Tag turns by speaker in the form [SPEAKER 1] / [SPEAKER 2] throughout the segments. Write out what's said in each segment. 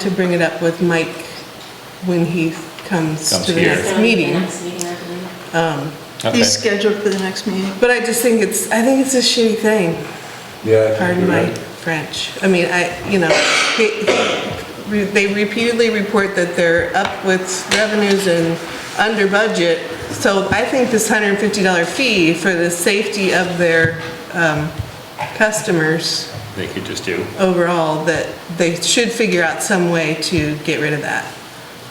[SPEAKER 1] to bring it up with Mike when he comes
[SPEAKER 2] Comes
[SPEAKER 1] to the
[SPEAKER 2] here.
[SPEAKER 1] next meeting.
[SPEAKER 3] Next meeting, I believe.
[SPEAKER 2] Okay.
[SPEAKER 4] He's scheduled for the next meeting.
[SPEAKER 1] But I just think it's, I think it's a shitty thing,
[SPEAKER 5] Yeah. I think
[SPEAKER 1] pardon
[SPEAKER 5] you're
[SPEAKER 1] my
[SPEAKER 5] right.
[SPEAKER 1] French. I mean, I, you know, they- they repeatedly report that they're up with revenues and under budget. So I think this $150 fee for the safety of their um, customers
[SPEAKER 2] They could just do,
[SPEAKER 1] overall, that they should figure out some way to get rid of that,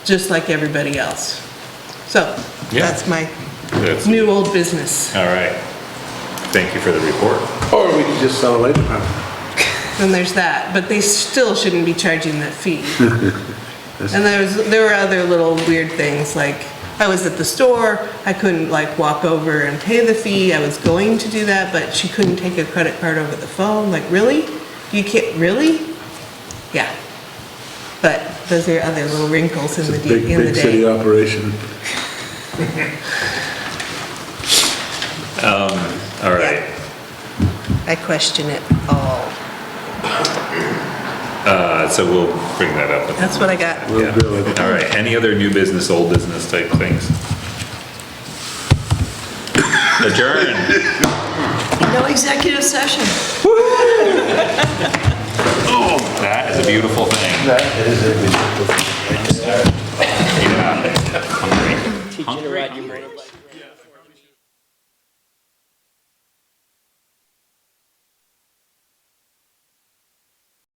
[SPEAKER 1] just like everybody else. So
[SPEAKER 2] Yeah.
[SPEAKER 1] that's my
[SPEAKER 2] that's, all
[SPEAKER 1] new old business.
[SPEAKER 2] right. Thank you for the report.
[SPEAKER 5] Or we could just sell it later. huh?
[SPEAKER 1] Then there's that, but they still shouldn't be charging that fee. And there was, there were other little weird things, like, I was at the store, I couldn't like walk over and pay the fee, I was going to do that, but she couldn't take a credit card over the phone, like, really? You can't, really? Yeah. But those are other little wrinkles in
[SPEAKER 5] It's
[SPEAKER 1] the,
[SPEAKER 5] a
[SPEAKER 1] de-
[SPEAKER 5] big,
[SPEAKER 1] in the
[SPEAKER 5] big
[SPEAKER 1] day.
[SPEAKER 5] city operation.
[SPEAKER 2] All right.
[SPEAKER 1] I question it all.
[SPEAKER 2] Uh, So we'll bring that up. with-
[SPEAKER 1] That's what I got.
[SPEAKER 5] We'll
[SPEAKER 2] Yeah.
[SPEAKER 5] grill it.
[SPEAKER 2] All right. Any other new business, old business type things? Adjourn.
[SPEAKER 4] No executive session.
[SPEAKER 2] That is a beautiful thing.
[SPEAKER 5] That is a
[SPEAKER 2] Yeah. Hungry.
[SPEAKER 3] Teaching her right, you bring it back.